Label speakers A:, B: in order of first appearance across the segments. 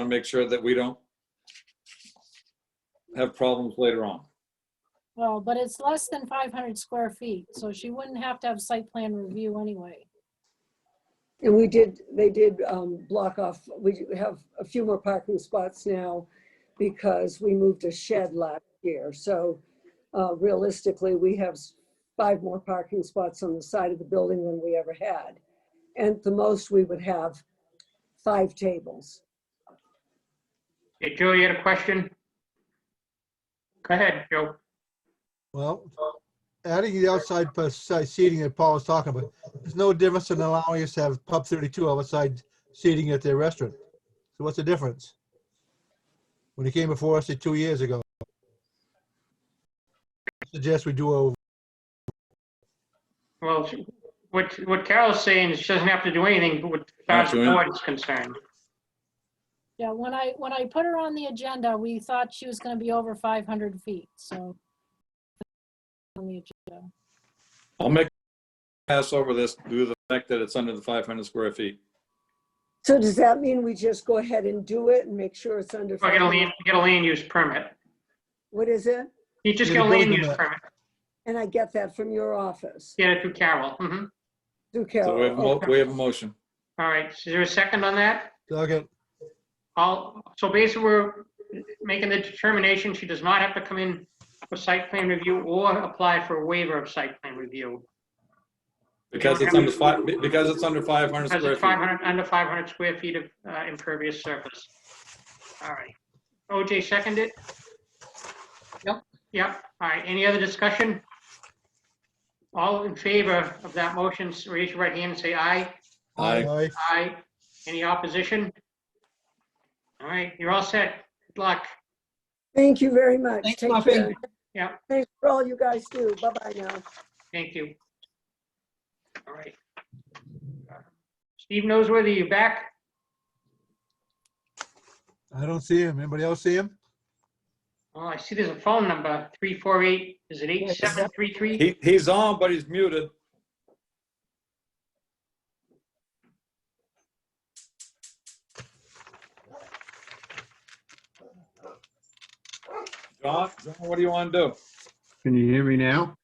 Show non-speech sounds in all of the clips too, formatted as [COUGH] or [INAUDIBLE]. A: to make sure that we don't have problems later on.
B: Well, but it's less than 500 square feet, so she wouldn't have to have site plan review anyway.
C: And we did, they did um, block off, we have a few more parking spots now because we moved a shed last year. So uh, realistically, we have s- five more parking spots on the side of the building than we ever had. And at the most, we would have five tables.
D: Hey, Joe, you had a question? Go ahead, Joe.
E: Well, adding the outside pa- side seating that Paul was talking about, there's no difference in allowing us to have pub 32 outside seating at their restaurant. So what's the difference? When it came before us uh, two years ago. I Suggest we do a,
D: Well, what, what Carol's saying is she doesn't have to do anything, but what far as the
A: doing it.
D: board is concerned.
B: Yeah, when I, when I put her on the agenda, we thought she was gonna be over 500 feet, so. on the agenda.
A: I'll make, pass over this due to the fact that it's under the 500 square feet.
C: So does that mean we just go ahead and do it and make sure it's under?
D: Or get a land, get a land use permit.
C: What is it?
D: You just
E: Get
D: get
E: a
D: a land
E: building
D: use
E: permit.
D: permit.
C: And I get that from your office, Oh,
D: Get it through Carol. Mhm.
C: through
A: So we have, a mo-
C: Carol.
A: we have a motion.
D: All right, is there a second on that?
E: okay,
D: All, so basically, we're making the determination she does not have to come in for site plan review or apply for a waiver of site plan review.
A: Because it's under five, because it's under 500
D: Because
A: square
D: it's
A: feet.
D: 500, under 500 square feet of uh, impervious surface. All right. OJ seconded? Yep. Yep. All right. Any other discussion? All in favor of that motion, raise your right hand and say aye.
A: Aye.
E: aye,
D: Aye. Any opposition? All right, you're all set. Good luck.
C: Thank you very much.
F: Thanks,
C: Take
F: Muffin.
C: care.
D: Yeah.
C: Thanks for all you guys do. Bye-bye now.
D: Thank you. All right. Uh, Steve knows whether you're back.
E: I don't see him. Anybody else see him?
D: Oh, I see there's a phone number, 348, is it 8733?
A: He, he's on, but he's muted. John, John, what do you want to do?
G: Can you hear me now?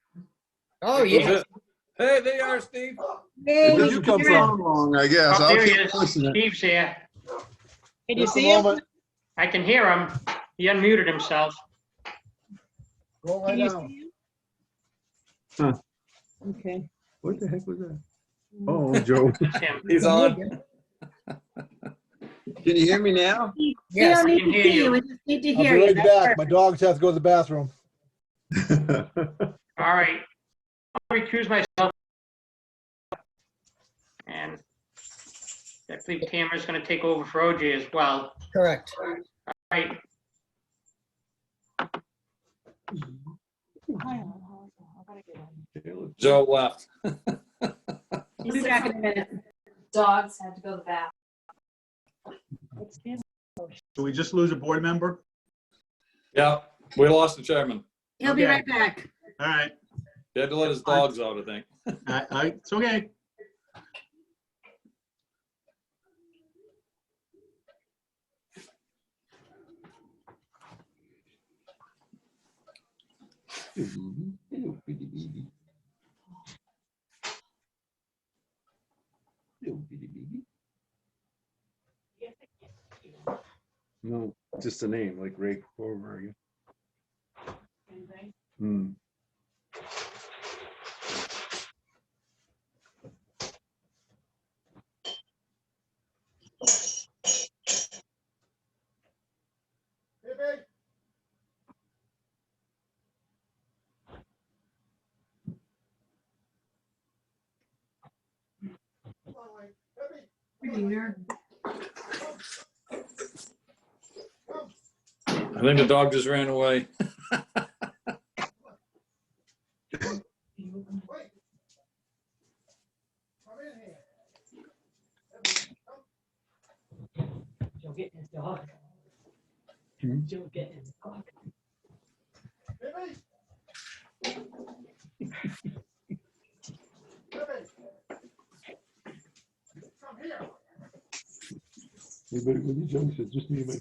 F: Oh,
A: Who's
F: yeah.
A: it? Hey, there you are, Steve.
E: Where
F: Hey,
E: did you come
D: Yeah.
E: from?
G: Wrong, I guess.
D: Oh,
G: I'll
D: there he
G: keep
D: is.
G: listening.
D: Steve's here.
F: Can you
E: Just a
F: see him?
E: moment.
D: I can hear him. He unmuted himself.
E: Go right
F: Can you
E: now.
F: see
G: Huh.
F: him? Okay.
G: What the heck was that? Oh, Joe,
D: It's him.
A: He's on.
G: can you hear me [LAUGHS] now?
H: We
F: Yes,
H: don't
D: I
H: need to
D: can hear
H: see
D: you.
H: you, we just need to
E: I'll
H: hear
E: be
H: you.
E: right
H: That's
E: back. My
H: perfect.
E: dogs have to go to the bathroom.
D: All right. I'll recuse myself. And I believe Tamara's going to take over for OJ as well.
F: Correct.
D: All right.
A: Joe left.
H: We'll be back in a minute.
I: dogs had to go to the bathroom.
J: Do we just lose a board member?
A: Yeah, we lost the chairman.
H: He'll be
D: Okay.
H: right back.
J: All right,
A: He had to let his dogs out, I think.
J: I, I, it's okay.
G: No, just a name like Ray Corver. again. Hmm.
A: I think the dog just ran away.
F: Joe getting his dog. Joe getting his dog.
G: Anybody with the junction, just me and my